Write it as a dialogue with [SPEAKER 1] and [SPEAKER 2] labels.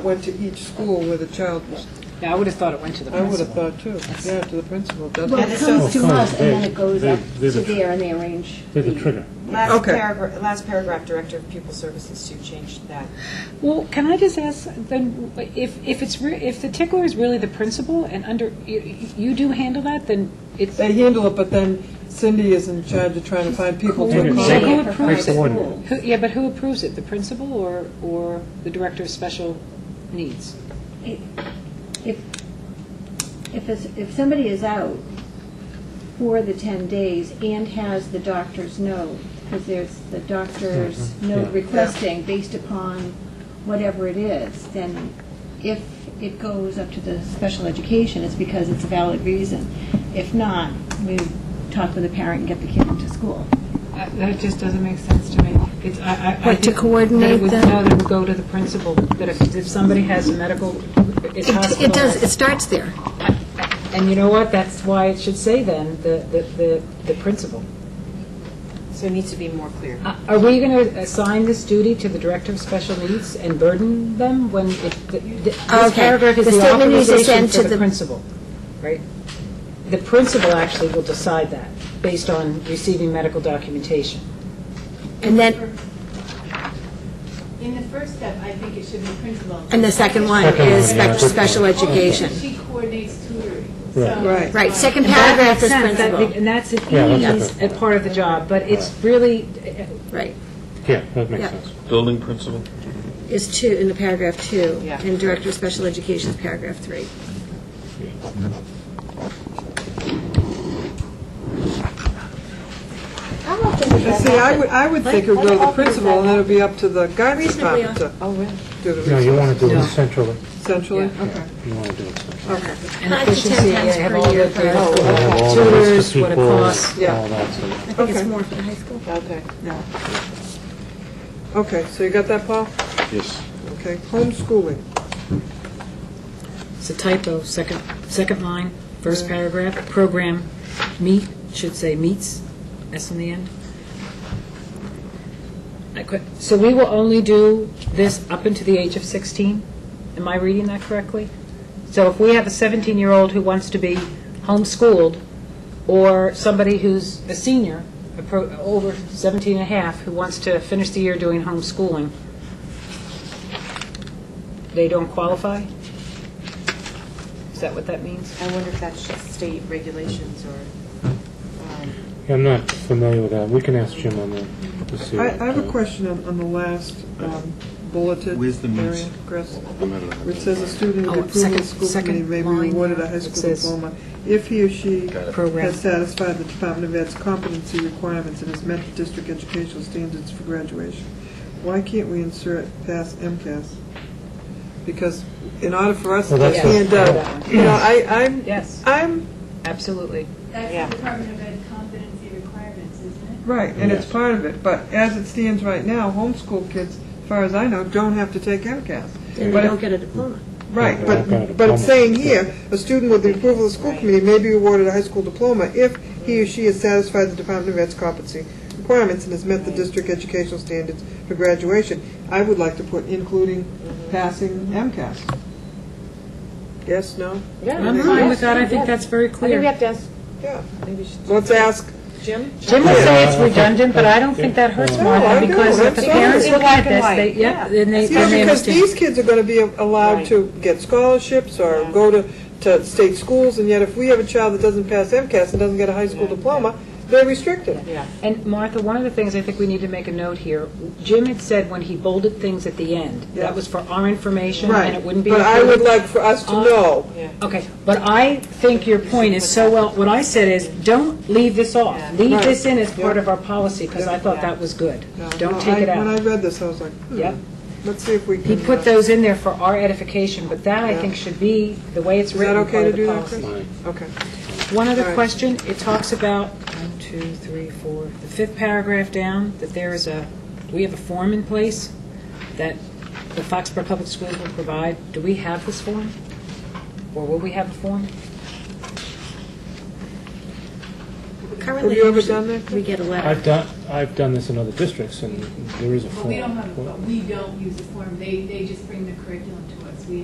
[SPEAKER 1] went to each school where the child was,
[SPEAKER 2] Yeah, I would have thought it went to the
[SPEAKER 1] I would have
[SPEAKER 2] principal.
[SPEAKER 1] thought too, yeah, to the principal, doesn't
[SPEAKER 3] Well,
[SPEAKER 1] it?
[SPEAKER 3] it
[SPEAKER 4] so-
[SPEAKER 3] comes to
[SPEAKER 4] Well,
[SPEAKER 3] us, and then
[SPEAKER 4] they-
[SPEAKER 3] it goes up
[SPEAKER 4] they-
[SPEAKER 3] to
[SPEAKER 4] they-
[SPEAKER 3] there, and they arrange.
[SPEAKER 4] They're the trigger.
[SPEAKER 5] Last
[SPEAKER 1] Okay.
[SPEAKER 5] paragraph, last paragraph, Director of Pupil Services, to change that.
[SPEAKER 2] Well, can I just ask, then, if, if it's, re- if the tickler is really the principal and under, you, you do handle that, then it's,
[SPEAKER 1] They handle it, but then Cindy is in charge of trying to find people
[SPEAKER 4] And
[SPEAKER 1] to
[SPEAKER 4] it's
[SPEAKER 2] Who
[SPEAKER 1] call.
[SPEAKER 4] sacred.
[SPEAKER 2] approves
[SPEAKER 4] Makes the
[SPEAKER 2] it?
[SPEAKER 4] one.
[SPEAKER 2] who- yeah, but who approves it? The principal or, or the director of special needs?
[SPEAKER 3] If, if, it's- if somebody is out for the 10 days and has the doctor's note, because there's the doctor's note
[SPEAKER 4] Mm-hmm. Yeah.
[SPEAKER 3] requesting based upon whatever it is, then if it goes up to the special education, it's because it's a valid reason. If not, we talk with the parent and get the kid into school.
[SPEAKER 2] That Uh, that just doesn't make sense to me. It's, I- I, I.
[SPEAKER 6] What, to
[SPEAKER 2] think that it
[SPEAKER 6] coordinate
[SPEAKER 2] would-
[SPEAKER 6] them?
[SPEAKER 2] No, that it would go to the principal, that if, if somebody has a medical,
[SPEAKER 6] It-
[SPEAKER 2] it's
[SPEAKER 6] It does,
[SPEAKER 2] hospitalized.
[SPEAKER 6] it starts there.
[SPEAKER 2] And you know what? That's why it should say then, the, the- the, the principal.
[SPEAKER 5] So it needs to be more clear.
[SPEAKER 2] Uh, Are we going to assign this duty to the Director of Special Needs and burden them when it, th- th- this
[SPEAKER 6] Okay.
[SPEAKER 2] paragraph is
[SPEAKER 6] The
[SPEAKER 2] the
[SPEAKER 6] statement needs to send
[SPEAKER 2] authorization for
[SPEAKER 6] to
[SPEAKER 2] the
[SPEAKER 6] the-
[SPEAKER 2] principal, right? The principal actually will decide that, based on receiving medical documentation.
[SPEAKER 6] And then,
[SPEAKER 7] In the first step, I think it should be principal.
[SPEAKER 6] and the second one
[SPEAKER 4] Second one,
[SPEAKER 6] is
[SPEAKER 4] yeah,
[SPEAKER 6] spec-
[SPEAKER 4] good point.
[SPEAKER 6] special education.
[SPEAKER 7] She coordinates tutoring.
[SPEAKER 4] Right.
[SPEAKER 1] Right.
[SPEAKER 6] Right, second
[SPEAKER 2] And that
[SPEAKER 6] paragraph
[SPEAKER 2] makes
[SPEAKER 6] is
[SPEAKER 2] sense, that-
[SPEAKER 6] principal.
[SPEAKER 2] And that's an
[SPEAKER 4] Yeah, that's
[SPEAKER 2] ease,
[SPEAKER 4] okay.
[SPEAKER 2] a part of the job, but it's really, uh,
[SPEAKER 6] Right,
[SPEAKER 4] Yeah, that makes
[SPEAKER 6] Yeah.
[SPEAKER 4] sense.
[SPEAKER 8] Building principal?
[SPEAKER 6] is two, in the paragraph two.
[SPEAKER 5] Yeah.
[SPEAKER 6] And director of special education is paragraph three.
[SPEAKER 1] But See, I would, I would think it would go to the principal, and then it'd be up to the guidance
[SPEAKER 6] Reasonably,
[SPEAKER 1] department to do the
[SPEAKER 4] No, you
[SPEAKER 1] research,
[SPEAKER 4] want to do it centrally.
[SPEAKER 1] essentially. Okay.
[SPEAKER 4] You want to do it centrally.
[SPEAKER 2] and
[SPEAKER 6] Five to ten
[SPEAKER 2] efficiency,
[SPEAKER 6] times
[SPEAKER 2] I have
[SPEAKER 6] per
[SPEAKER 2] all
[SPEAKER 6] year
[SPEAKER 2] the
[SPEAKER 6] for
[SPEAKER 2] great-
[SPEAKER 6] us.
[SPEAKER 2] what
[SPEAKER 4] Have all the
[SPEAKER 2] tutors,
[SPEAKER 4] list of
[SPEAKER 2] what it
[SPEAKER 4] people,
[SPEAKER 2] costs.
[SPEAKER 1] yeah.
[SPEAKER 4] All that stuff.
[SPEAKER 6] I think it's
[SPEAKER 1] Okay.
[SPEAKER 6] more for the high school.
[SPEAKER 5] Okay.
[SPEAKER 1] Okay, so you got that, Paul?
[SPEAKER 8] Yes.
[SPEAKER 1] Okay, homeschooling.
[SPEAKER 2] It's a typo, second, second line, first paragraph, program meet, should say meets, S in the end. I quit. So we will only do this up into the age of 16? Am I reading that correctly? So if we have a 17-year-old who wants to be homeschooled, or somebody who's a senior, appro- over 17 and a half, who wants to finish the year doing homeschooling, they don't qualify? Is that what that means?
[SPEAKER 5] I wonder if that's just state regulations or, um,
[SPEAKER 4] Yeah, I'm not familiar with that. We can ask Jim on that to see.
[SPEAKER 1] I,
[SPEAKER 4] what,
[SPEAKER 1] I have a
[SPEAKER 4] uh,
[SPEAKER 1] question on, on the last um, bulleted
[SPEAKER 8] Where's the meets?
[SPEAKER 1] area, Chris. Which says a student
[SPEAKER 2] Oh,
[SPEAKER 1] who approves
[SPEAKER 2] second-
[SPEAKER 1] of school
[SPEAKER 2] second
[SPEAKER 1] committee may be
[SPEAKER 2] line.
[SPEAKER 1] awarded a high
[SPEAKER 2] It
[SPEAKER 1] school
[SPEAKER 2] says-
[SPEAKER 1] diploma if he or she
[SPEAKER 2] Program.
[SPEAKER 1] has satisfied the Department of Ed's competency requirements and has met the district educational standards for graduation. Why can't we insert past MCAS? Because in order for us to
[SPEAKER 4] Well, that's
[SPEAKER 2] what-
[SPEAKER 1] hand out, you know, I, I'm,
[SPEAKER 2] Yes,
[SPEAKER 1] I'm,
[SPEAKER 2] absolutely.
[SPEAKER 5] Yeah.
[SPEAKER 7] That's the Department of Ed competency requirements, isn't
[SPEAKER 1] right, and it's
[SPEAKER 4] Yes.
[SPEAKER 1] part of it, but as it stands right now, homeschool kids, as far as I know, don't have to take MCAS.
[SPEAKER 6] And
[SPEAKER 1] But
[SPEAKER 6] they
[SPEAKER 1] if-
[SPEAKER 6] don't get a diploma.
[SPEAKER 1] Right,
[SPEAKER 4] Yeah,
[SPEAKER 1] but,
[SPEAKER 4] I've got a
[SPEAKER 1] but it's
[SPEAKER 4] diploma.
[SPEAKER 1] saying here, a student with the approval of the school committee may be awarded a high school diploma if he or she has satisfied the Department of Ed's competency requirements and has met the district educational standards for graduation. I would like to put including passing MCAS. Yes, no?
[SPEAKER 2] I'm fine with that, I think that's very clear.
[SPEAKER 5] to ask,
[SPEAKER 1] Yeah.
[SPEAKER 5] maybe we should.
[SPEAKER 1] Let's ask,
[SPEAKER 5] Jim?
[SPEAKER 2] Jim would say it's redundant, but I don't think that hurts
[SPEAKER 4] No,
[SPEAKER 1] I
[SPEAKER 2] Martha,
[SPEAKER 1] don't.
[SPEAKER 2] because if the
[SPEAKER 1] Absolutely.
[SPEAKER 2] parents look at
[SPEAKER 5] Black and
[SPEAKER 2] this,
[SPEAKER 5] white.
[SPEAKER 2] they, yeah, then they,
[SPEAKER 1] you know,
[SPEAKER 2] then they
[SPEAKER 1] because
[SPEAKER 2] understand.
[SPEAKER 1] these kids are gonna be allowed
[SPEAKER 5] Right.
[SPEAKER 1] to get scholarships or go to, to state schools, and yet if we have a child that doesn't pass MCAS and doesn't get a high school diploma, they're restricted.
[SPEAKER 5] Yeah.
[SPEAKER 2] And Martha, one of the things I think we need to make a note here, Jim had said when he bolded things at the end,
[SPEAKER 1] Yeah.
[SPEAKER 2] that was for our information,
[SPEAKER 1] Right.
[SPEAKER 2] and it wouldn't be.
[SPEAKER 1] But I would
[SPEAKER 2] included.
[SPEAKER 1] like for us to
[SPEAKER 2] Uh,
[SPEAKER 1] know.
[SPEAKER 2] Okay, but I think your point is so well, what I said is, don't leave this off.
[SPEAKER 5] Yeah.
[SPEAKER 2] Leave
[SPEAKER 1] Right.
[SPEAKER 2] this in as part
[SPEAKER 1] Yeah.
[SPEAKER 2] of our policy, because I thought that was good.
[SPEAKER 1] No, no,
[SPEAKER 2] Don't take it
[SPEAKER 1] I- When I
[SPEAKER 2] out.
[SPEAKER 1] read this, I was like, hmm,
[SPEAKER 2] Yep.
[SPEAKER 1] let's see if we
[SPEAKER 2] He
[SPEAKER 1] can. uh,
[SPEAKER 2] put those in there for our edification, but that, I
[SPEAKER 1] Yeah.
[SPEAKER 2] think, should be, the way it's
[SPEAKER 1] that
[SPEAKER 2] written,
[SPEAKER 1] okay
[SPEAKER 2] part
[SPEAKER 1] to
[SPEAKER 2] of the
[SPEAKER 1] do that,
[SPEAKER 2] policy.
[SPEAKER 1] Chris?
[SPEAKER 4] fine.
[SPEAKER 1] Okay.
[SPEAKER 2] One
[SPEAKER 1] All
[SPEAKER 2] other
[SPEAKER 1] right.
[SPEAKER 2] question, it talks about, one, two, three, four, the fifth paragraph down, that there is a, we have a form in place that the Foxborough Public Schools will provide. Do we have this form? Or will we have a form?
[SPEAKER 5] But
[SPEAKER 6] currently.
[SPEAKER 1] you ever done that?
[SPEAKER 6] We get a letter.
[SPEAKER 4] I've done, I've done this in other districts, and there is a form.
[SPEAKER 7] But we don't have, but we don't use the form, they, they just bring the curriculum to us, we